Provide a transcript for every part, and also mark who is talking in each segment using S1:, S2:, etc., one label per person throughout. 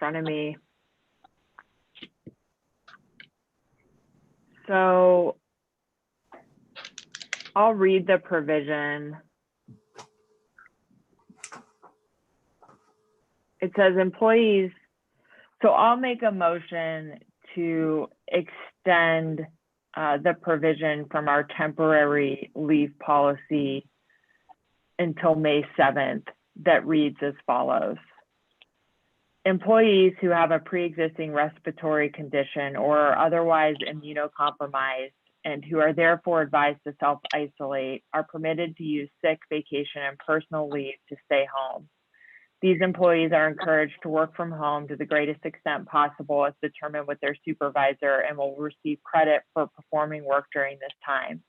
S1: front of me. So I'll read the provision. It says employees, so I'll make a motion to extend uh, the provision from our temporary leave policy until May 7th that reads as follows. Employees who have a pre-existing respiratory condition or are otherwise immunocompromised and who are therefore advised to self-isolate are permitted to use sick, vacation, and personal leave to stay home. These employees are encouraged to work from home to the greatest extent possible as determined with their supervisor and will receive credit for performing work during this time.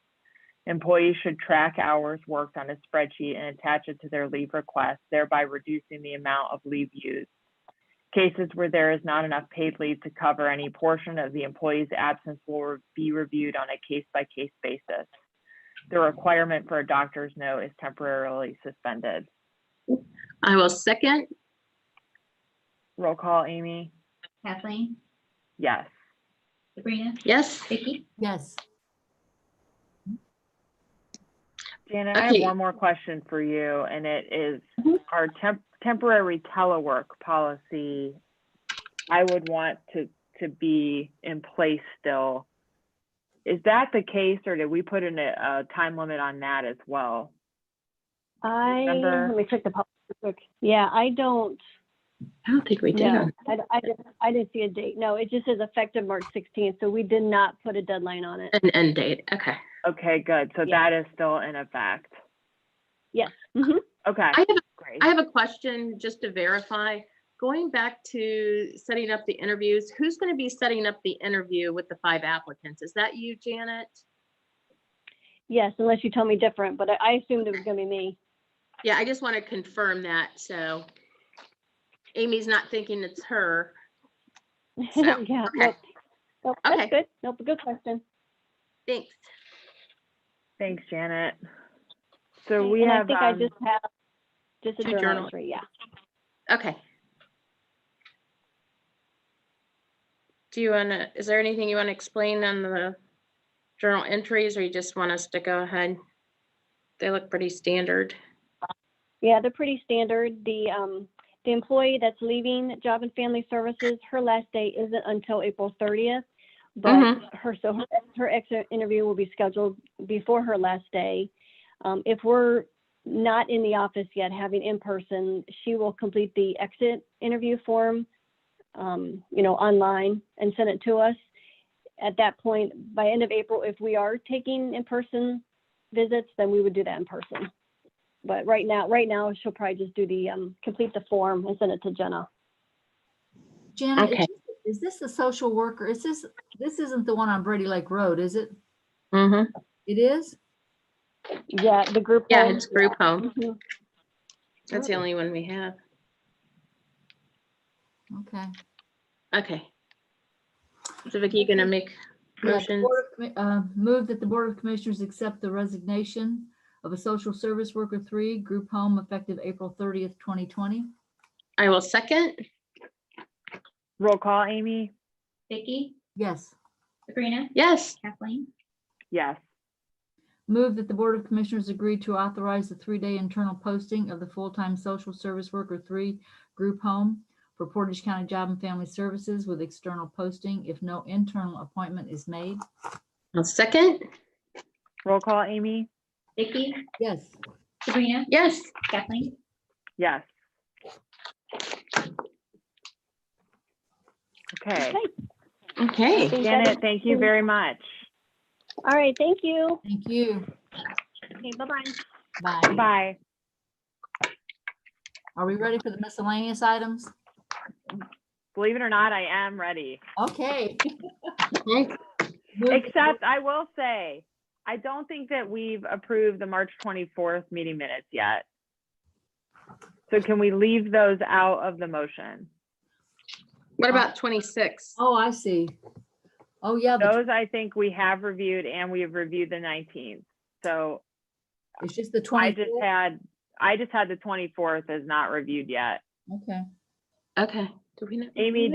S1: Employees should track hours worked on a spreadsheet and attach it to their leave request, thereby reducing the amount of leave used. Cases where there is not enough paid leave to cover any portion of the employee's absence will be reviewed on a case-by-case basis. The requirement for a doctor's note is temporarily suspended.
S2: I will second.
S1: Roll call, Amy?
S3: Kathleen,
S1: Yes.
S3: Sabrina,
S2: Yes.
S3: Vicky,
S4: Yes,
S1: Janet, I have
S2: Okay.
S1: one more question for you, and it is
S2: Mhm.
S1: our temp- temporary telework policy. I would want to, to be in place still. Is that the case, or did we put in a, a time limit on that as well?
S5: I,
S1: Remember-
S5: let me check the policy real quick. Yeah, I don't,
S2: I don't think we did.
S5: no,
S2: on-
S5: I, I didn't, I didn't see a date. No, it just says effective March 16th, so we did not put a deadline on it.
S2: An end date. Okay.
S1: Okay, good. So
S5: Yeah.
S1: that is still in effect.
S5: Yes, mhm.
S1: Okay,
S2: I have, a-
S1: great.
S2: I have a question just to verify. Going back to setting up the interviews, who's going to be setting up the interview with the five applicants? Is that you, Janet?
S5: Yes, unless you tell me different, but I, I assumed it was gonna be me.
S2: Yeah, I just want to confirm that. So Amy's not thinking it's her. So, okay.
S5: Yeah, nope. Nope,
S2: Okay.
S5: that's good. Nope, good question.
S2: Thanks.
S1: Thanks, Janet. So we
S5: And
S1: have,
S5: I
S1: um,
S5: think I just have, just a
S2: two
S5: journal
S2: journal-
S5: entry, yeah.
S2: Okay. Do you want to, is there anything you want to explain on the journal entries or you just want us to go ahead? They look pretty standard.
S5: Yeah, they're pretty standard. The, um, the employee that's leaving Job and Family Services, her last day isn't until April thirtieth. But
S2: Mhm.
S5: her, so her, her exit interview will be scheduled before her last day. Um, if we're not in the office yet, having in-person, she will complete the exit interview form, um, you know, online and send it to us. At that point, by end of April, if we are taking in-person visits, then we would do that in person. But right now, right now, she'll probably just do the, um, complete the form and send it to Jenna.
S4: Janet, is
S2: Okay.
S4: this- is this the social worker? Is this, this isn't the one on Brady Lake Road, is it?
S2: Mhm.
S4: It is?
S5: Yeah, the group.
S2: Yeah,
S5: home.
S2: it's group home.
S5: Mhm.
S2: That's the only one we have.
S4: Okay.
S2: Okay. So Vicky, you gonna make
S4: Yeah, the
S2: motions?
S4: Board of Commi- uh, Move that the Board of Commissioners accept the resignation of a social service worker three, group home, effective April thirtieth, twenty twenty.
S2: I will second.
S1: roll call, Amy?
S3: Vicky,
S4: Yes.
S3: Sabrina,
S2: Yes.
S3: Kathleen,
S1: Yes.
S4: Move that the Board of Commissioners agree to authorize the three-day internal posting of the full-time social service worker three, group home for Portage County Job and Family Services with external posting if no internal appointment is made.
S2: I'll second.
S1: Roll call, Amy?
S3: Vicky,
S4: Yes.
S3: Sabrina,
S2: Yes.
S3: Kathleen,
S1: Yes. Okay,
S5: Okay. I
S2: Okay.
S5: think that
S1: Janet,
S5: is-
S1: thank you very much.
S5: All right, thank you.
S4: Thank you.
S5: Okay, bye-bye.
S4: Bye.
S1: Bye.
S4: Are we ready for the miscellaneous items?
S1: Believe it or not, I am ready.
S4: Okay.
S2: Okay.
S1: Except I will say, I don't think that we've approved the March 24th meeting minutes yet. So can we leave those out of the motion?
S2: What about twenty-six?
S4: Oh, I see. Oh, yeah, the-
S1: Those I think we have reviewed and we have reviewed the 19th. So
S4: it's just the
S1: I just
S4: 24th.
S1: had, I just had the 24th as not reviewed yet.
S4: Okay.
S2: Okay.
S6: Do we not?
S2: Amy,